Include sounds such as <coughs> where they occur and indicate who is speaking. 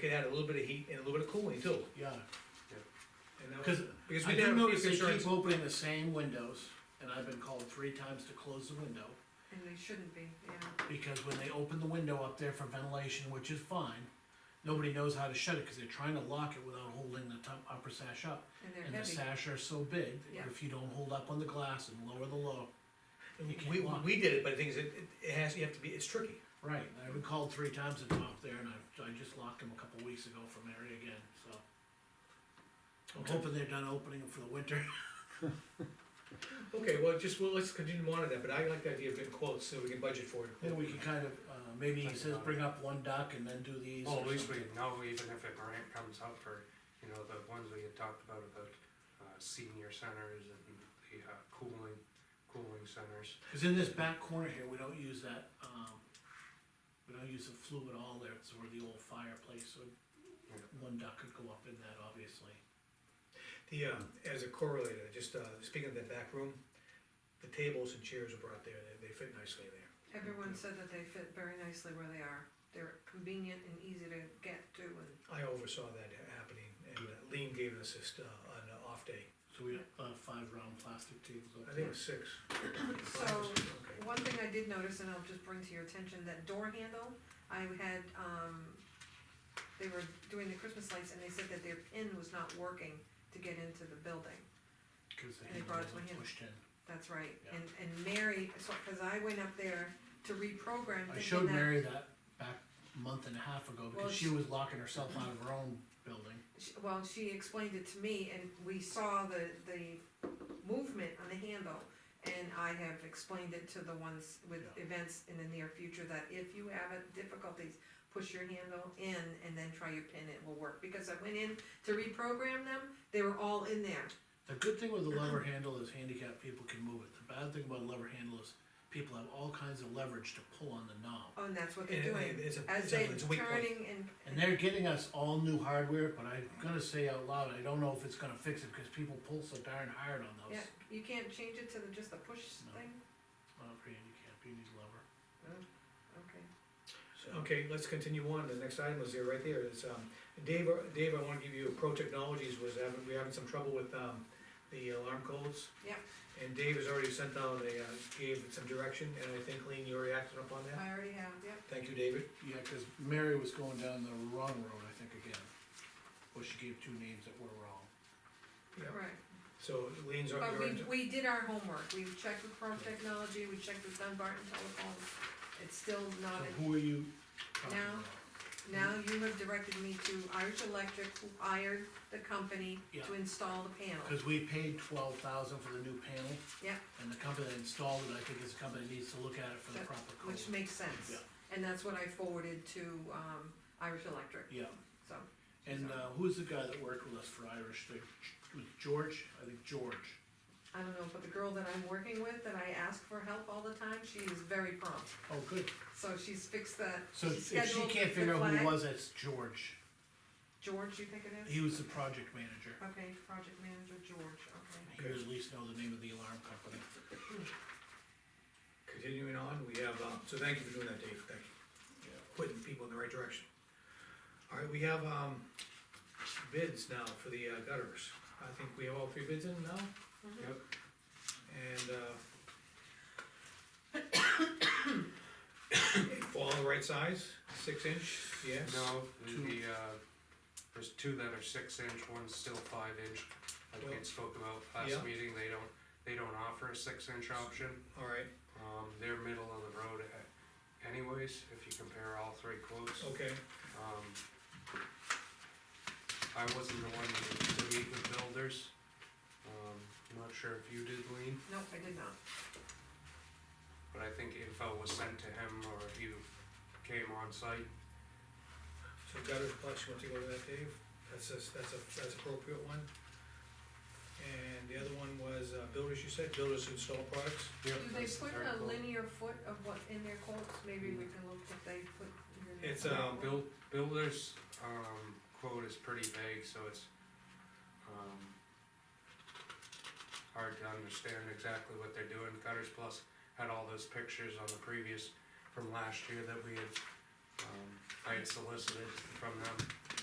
Speaker 1: could add a little bit of heat and a little bit of cooling too.
Speaker 2: yeah.
Speaker 1: And that was-
Speaker 2: Because
Speaker 1: Because
Speaker 2: I
Speaker 1: we
Speaker 2: do
Speaker 1: did have a
Speaker 2: notice
Speaker 1: few
Speaker 2: they
Speaker 1: concerns.
Speaker 2: keep opening the same windows, and I've been called three times to close the window,
Speaker 3: and they shouldn't be, yeah.
Speaker 2: because when they open the window up there for ventilation, which is fine, nobody knows how to shut it, cause they're trying to lock it without holding the top, upper sash up.
Speaker 3: And
Speaker 2: And
Speaker 3: they're
Speaker 2: the
Speaker 3: heavy,
Speaker 2: sash are so big,
Speaker 3: Yeah.
Speaker 2: that if you don't hold up on the glass and lower the low, you can't
Speaker 1: We,
Speaker 2: lock.
Speaker 1: we did it, but the thing is, it, it- it has, you have to be, it's tricky.
Speaker 2: right, I've been called three times to come up there, and I, I just locked them a couple weeks ago from Mary again, so. I'm
Speaker 1: Okay.
Speaker 2: hoping they're done opening 'em for the winter.
Speaker 1: Okay, well, just, well, let's continue to monitor that, but I like the idea of getting quotes, so we can budget for it.
Speaker 2: Then we can kind of, uh, maybe he says bring up one duck and then do these or
Speaker 4: Well, Oh, at least we
Speaker 2: something.
Speaker 4: know, even if a grant comes up for, you know, the ones we had talked about, the uh, senior centers and the uh, cooling, cooling centers.
Speaker 2: Cause in this back corner here, we don't use that, um, we don't use the flue at all there, it's where the old fireplace, so one duck could go up in that, obviously.
Speaker 1: The, uh, as a correlator, just, uh, speaking of that back room, the tables and chairs are brought there, they, they fit nicely there.
Speaker 3: everyone said that they fit very nicely where they are, they're convenient and easy to get to, and
Speaker 1: I oversaw that happening, and uh, Lean gave us this, uh, on an off day,
Speaker 2: So we have uh, five round plastic tables up
Speaker 1: I think it
Speaker 2: there.
Speaker 1: was six.
Speaker 3: <coughs> So-
Speaker 1: Okay.
Speaker 3: One thing I did notice, and I'll just bring to your attention, that door handle, I had, um, they were doing the Christmas lights and they said that their pin was not working to get into the building.
Speaker 2: Cause the
Speaker 3: And it brought
Speaker 2: handles
Speaker 3: it to
Speaker 2: are
Speaker 3: him.
Speaker 2: pushed in.
Speaker 3: That's right,
Speaker 2: Yeah.
Speaker 3: and, and Mary, so, cause I went up there to reprogram
Speaker 2: I
Speaker 3: thinking
Speaker 2: showed
Speaker 3: that,
Speaker 2: Mary that back month and a half ago,
Speaker 3: Well,
Speaker 2: because she
Speaker 3: she-
Speaker 2: was locking herself out of her own building.
Speaker 3: she- well, she explained it to me and we saw the, the movement on the handle. And I have explained it to the ones with
Speaker 2: Yeah.
Speaker 3: events in the near future, that if you have a- difficulties, push your handle in and then try your pin, it will work. Because I went in to reprogram them, they were all in there,
Speaker 2: The good thing with the
Speaker 3: <clears throat>
Speaker 2: lever handle is handicapped people can move it, the bad thing about a lever handle is people have all kinds of leverage to pull on the knob.
Speaker 3: oh, and that's what they're
Speaker 1: And-
Speaker 3: doing.
Speaker 1: and it's a-
Speaker 3: As
Speaker 1: it's a-
Speaker 3: they're
Speaker 1: it's a weak point.
Speaker 3: turning and.
Speaker 2: And they're getting us all new hardware, but I'm gonna say out loud, I don't know if it's gonna fix it, cause people pull so darn hard on those.
Speaker 3: Yeah, you can't change it to the, just the push
Speaker 2: No.
Speaker 3: thing,
Speaker 2: Not for handicapped, you need a lever.
Speaker 3: okay.
Speaker 2: So,
Speaker 1: Okay, let's continue on, the next item was there, right there, it's, um, Dave, Dave, I wanna give you, Pro Technologies was having, we having some trouble with, um, the alarm codes.
Speaker 3: Yep.
Speaker 1: And Dave has already sent out a, uh, gave some direction, and I think, Lean, you already acted upon that,
Speaker 3: I already have, yep.
Speaker 1: thank you, David.
Speaker 2: yeah, cause Mary was going down the wrong road, I think, again. Well, she gave two names that were wrong.
Speaker 1: Yeah.
Speaker 3: Right,
Speaker 1: So Lean's
Speaker 3: but
Speaker 1: already,
Speaker 3: we, we did our homework, we checked with Chrome Technology, we checked with Dunbarton Telephone, it's still not,
Speaker 2: So who are you talking
Speaker 3: Now?
Speaker 2: about?
Speaker 3: now you have directed me to Irish Electric, who hired the company to
Speaker 2: Yeah.
Speaker 3: install the panel.
Speaker 2: Cause we paid twelve thousand for the new panel.
Speaker 3: Yeah.
Speaker 2: And the company that installed it, I think is a company that needs to look at it for the
Speaker 3: That-
Speaker 2: proper code.
Speaker 3: Which makes sense,
Speaker 2: Yeah.
Speaker 3: and that's what I forwarded to, um, Irish Electric,
Speaker 2: Yeah,
Speaker 3: so,
Speaker 2: and, uh, who's the guy that worked with us for Irish, thing? was George, I think George.
Speaker 3: I don't know, but the girl that I'm working with, that I ask for help all the time, she is very prompt.
Speaker 2: Oh, good,
Speaker 3: So she's fixed that,
Speaker 2: So
Speaker 3: she
Speaker 2: if she
Speaker 3: scheduled the
Speaker 2: can't figure out who it
Speaker 3: flag.
Speaker 2: was, that's George.
Speaker 3: George, you think it is?
Speaker 2: He was the project manager.
Speaker 3: Okay, project manager George, okay.
Speaker 2: He would at least know the name of the alarm company.
Speaker 1: continuing on, we have, um, so thank you for doing that, Dave, thank you. Putting people in the right direction. All right, we have, um, bids now for the uh, gutters, I think we have all three bids in now?
Speaker 4: Yep.
Speaker 1: And, uh, <coughs> they fall the right size, six inch, yes?
Speaker 4: No,
Speaker 2: Two.
Speaker 4: the, uh, there's two that are six inch, one's still five inch, like we
Speaker 1: Well,
Speaker 4: had spoke about
Speaker 1: yeah.
Speaker 4: last meeting, they don't, they don't offer a six inch option.
Speaker 1: All right,
Speaker 4: Um, they're middle of the road a- anyways, if you compare all three quotes.
Speaker 1: okay,
Speaker 4: Um, I wasn't the one to to meet with builders, um, I'm not sure if you did, Lean.
Speaker 3: Nope, I did not.
Speaker 4: But I think info was sent to him or if you came on site.
Speaker 1: so gutters plus, you want to go to that, Dave? That's a, that's a, that's appropriate one. And the other one was uh, builders, you said, builders who install products?
Speaker 4: Yep,
Speaker 3: Do they
Speaker 4: that's the
Speaker 3: put
Speaker 4: third
Speaker 3: a
Speaker 4: quote.
Speaker 3: linear foot of what in their quotes? Maybe we can look if they put. in their
Speaker 1: It's,
Speaker 3: quote.
Speaker 4: Uh, build, builder's, um, quote is pretty vague, so it's, um, hard to understand exactly what they're doing. Gutters Plus had all those pictures on the previous, from last year that we had, um, I had solicited from them.